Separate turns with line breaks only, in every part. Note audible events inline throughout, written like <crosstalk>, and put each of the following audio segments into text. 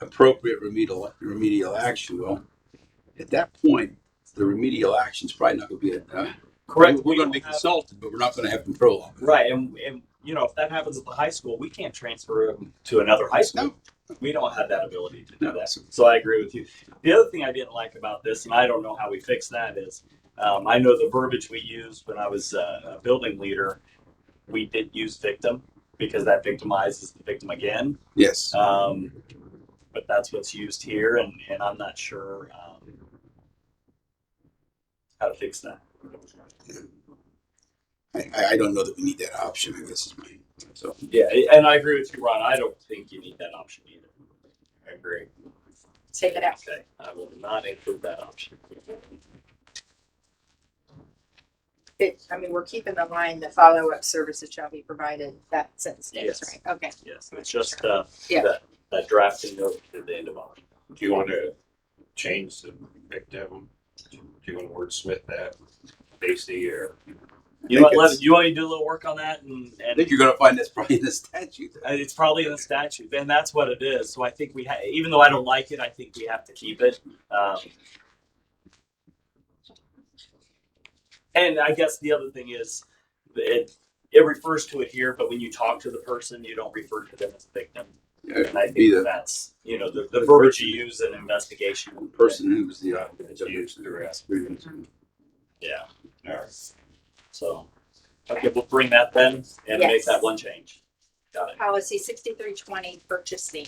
appropriate remedial, remedial action, well, at that point, the remedial action's probably not gonna be, uh,
Correct.
We're
We
gonna
don't
be
have-
consulted, but we're not gonna have control of it.
Right, and, and, you know, if that happens at the high school, we can't transfer them to another high school. We don't have that ability to do
No.
that. So I agree with you. The other thing I didn't like about this, and I don't know how we fix that, is um, I know the verbiage we used when I was uh, a building leader, we did use victim because that victimizes the victim again.
Yes,
Um, but that's what's used here, and, and I'm not sure um, how to fix that.
I, I I don't know that we need that option, I guess is my, so.
Yeah, and I agree with you, Ron. I don't think you need that option either. I agree.
Take it out.
Okay, I will not include that option.
It, I mean, we're keeping the line, the follow-up services shall be provided, that sentence stays,
Yes.
right? Okay,
Yes, it's just uh,
Yeah.
that, that drafting note at the end of all.
Do you want to change the victim? Do you want to wordsmith that? Basically, or
You want,
it's-
Lev, you want me to do a little work on that and,
I
and
think you're gonna find that's probably in the statute.
Uh, it's probably in the statute, and that's what it is. So I think we, ha- even though I don't like it, I think we have to keep it. Um, and I guess the other thing is, it it refers to it here, but when you talk to the person, you don't refer to them as a victim.
Yeah,
And I
be
think
the
that's you know the, the verbiage you use in investigation.
person who was the, uh,
Used the rest.
Yeah. All right. So okay, we'll bring that then and make
Yes.
that one change. Got it.
policy sixty-three twenty, purchasing.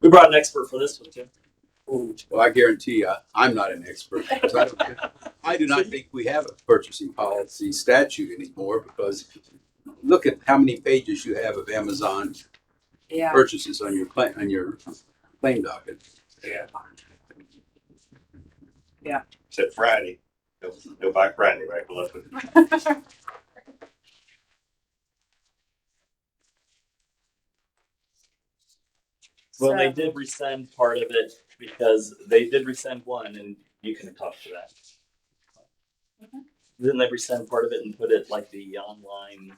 We brought an expert for this one too.
Well, I guarantee you, I'm not an expert. so I don't- I do not think we have a purchasing policy statute anymore because look at how many pages you have of Amazon
Yeah.
purchases on your claim, on your claim docket.
yeah.
Yeah.
Except Friday, they'll, they'll buy Friday, right? Well, that's what-
Well, they did rescind part of it because they did rescind one, and you can talk to that.
Mhm.
Then they rescind part of it and put it like the online.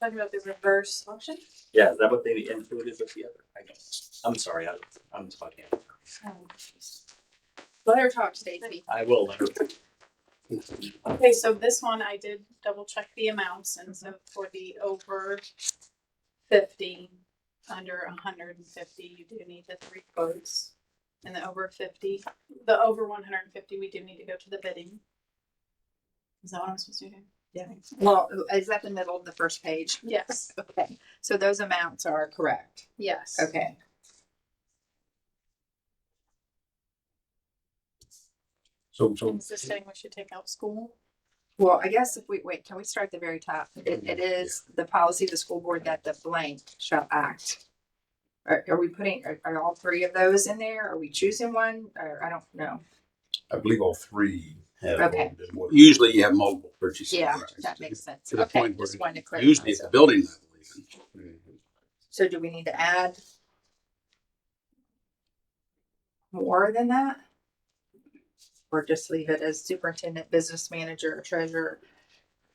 Talking about the reverse auction?
Yeah, is that what they included with the other? I guess. I'm sorry, I, I'm talking.
Let her talk, Stacy.
I will. uh, let her-
Okay, so this one I did double check the amounts and so for the over fifty, under hundred and fifty, you do need the three quotes. And the over fifty, the over one hundred and fifty, we do need to go to the bidding. Is that what I'm supposed to do?
Well, is that the middle of the first page?
Yes,
Okay, so those amounts are correct.
yes.
Okay.
So, so
Is this saying we should take out school?
Well, I guess if we, wait, can we start at the very top? It, it is the policy of the school board that the blank shall act. Are, are we putting, are, are all three of those in there? Are we choosing one? Or I don't know.
I believe all three have.
Okay.
more than one.
Usually you have multiple purchases.
Yeah, that makes sense.
To the
Okay,
point where
just wanted to clarify.
usually it's
So-
a building level even.
So do we need to add more than that? Or just leave it as superintendent, business manager, or treasurer?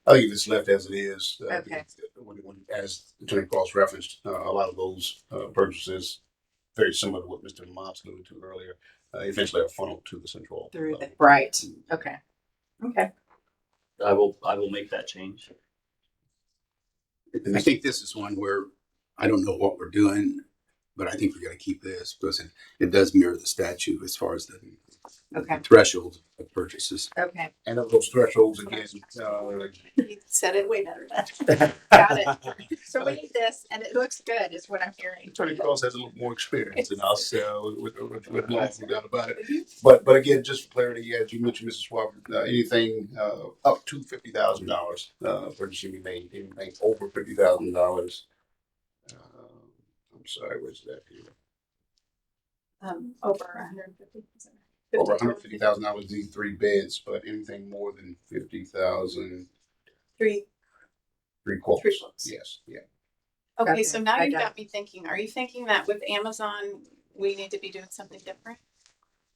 I think if Oh, it's left as it is, uh,
Okay.
when, when, as Attorney Cross referenced, uh, a lot of those, uh, purchases, very similar to what Mr. Mops alluded to earlier, uh, eventually are funneled to the central.
Through
uh,
the. Right, okay. Okay,
I will. I will make that change.
And I think this is one where I don't know what we're doing, but I think we're gonna keep this because it, it does mirror the statute as far as the
Okay.
threshold of purchases.
okay.
And of those thresholds again, uh,
You said it way better than. Got it.
So we need this and it looks good is what I'm hearing.
Attorney Cross has a little more experience than us, uh, with, with, with laws, no doubt about it. But, but again, just for clarity, as you mentioned, Mrs. Swafford, uh, anything, uh, up to fifty thousand dollars, uh, purchase should be made, anything over fifty thousand dollars. uh, I'm sorry, where's that here?
Um, over hundred and fifty.
Over hundred fifty thousand dollars, these three bids, but anything more than fifty thousand,
Three
three quotes.
Three quotes.
Yes, yeah.
Okay,
Okay, so now
I
you've
got
got me thinking, are you thinking that with Amazon, we need to be doing something different?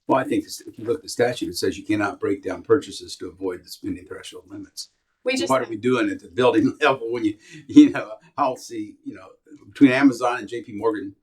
Well, I think this- if you look at the statute, it says you cannot break down purchases to avoid the spending threshold limits.
We just,
What are we doing <laughs> at the building level when you, you know, I'll see, you know, between Amazon and JP Morgan,